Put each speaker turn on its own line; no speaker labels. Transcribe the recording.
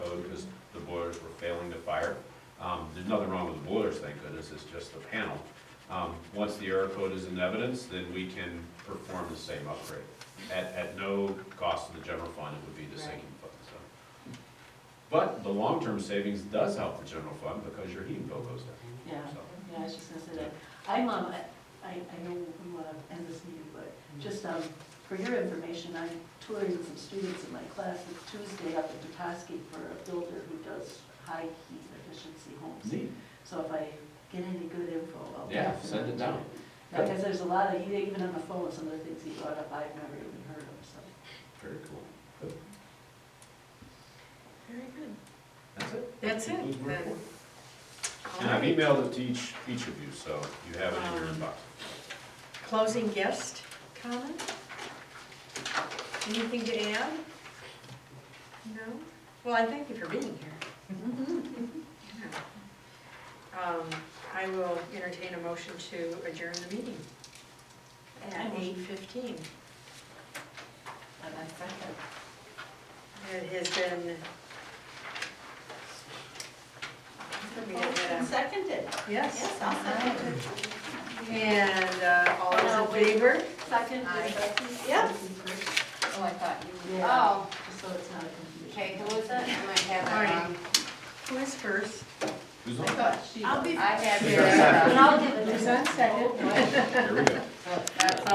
Um, this is just the panel. Um, Once the error code is in evidence, then we can perform the same upgrade. At, at no cost to the general fund, it would be the sinking fund, so. But the long-term savings does help the general fund because your heating bill goes down,
Yeah,
so.
yeah, I was just gonna say that. I'm, um, I, I know we wanna end this meeting, but
Mm-hmm.
just, um, for your information, I'm touring with some students in my class this Tuesday up at Petoskey for a builder who does high heat efficiency homes.
Neat.
So if I get any good info, I'll.
Mm-hmm. Yeah,
pass
send
on
it
to you.
down.
Yeah, cause there's a lot of, e, even on the phone, some of the things he brought up, I've never even heard of, so.
Very cool.
Very good.
That's it.
That's it,
Concludes my
then.
report. And I've emailed it to each, each of you, so you have it in
Um,
your inbox.
Closing guest comment? Anything to add? No? Well, I thank you for being here. Yeah. Um, I will entertain a motion to adjourn the meeting
I
at
will.
eight fifteen.
And I think that-
It has been.
Oh,
We did that.
Seconded.
Yes,
Yes, I'll second it.
and uh, all
No,
those in
wait.
favor?
Second,
Aye.
Becky?
Yep.
Just
Oh, I thought you.
Yeah.
Oh,
so it's not a confusion.
okay, who was that? I might have it
Alrighty.
wrong.
Who is first?
Who's
I
on?
thought she.
I'll be-
I uh, had
Who's on second?
Vera.
And I'll give it to
Who's on second?
Oh,
Here
boy.
we go.
That's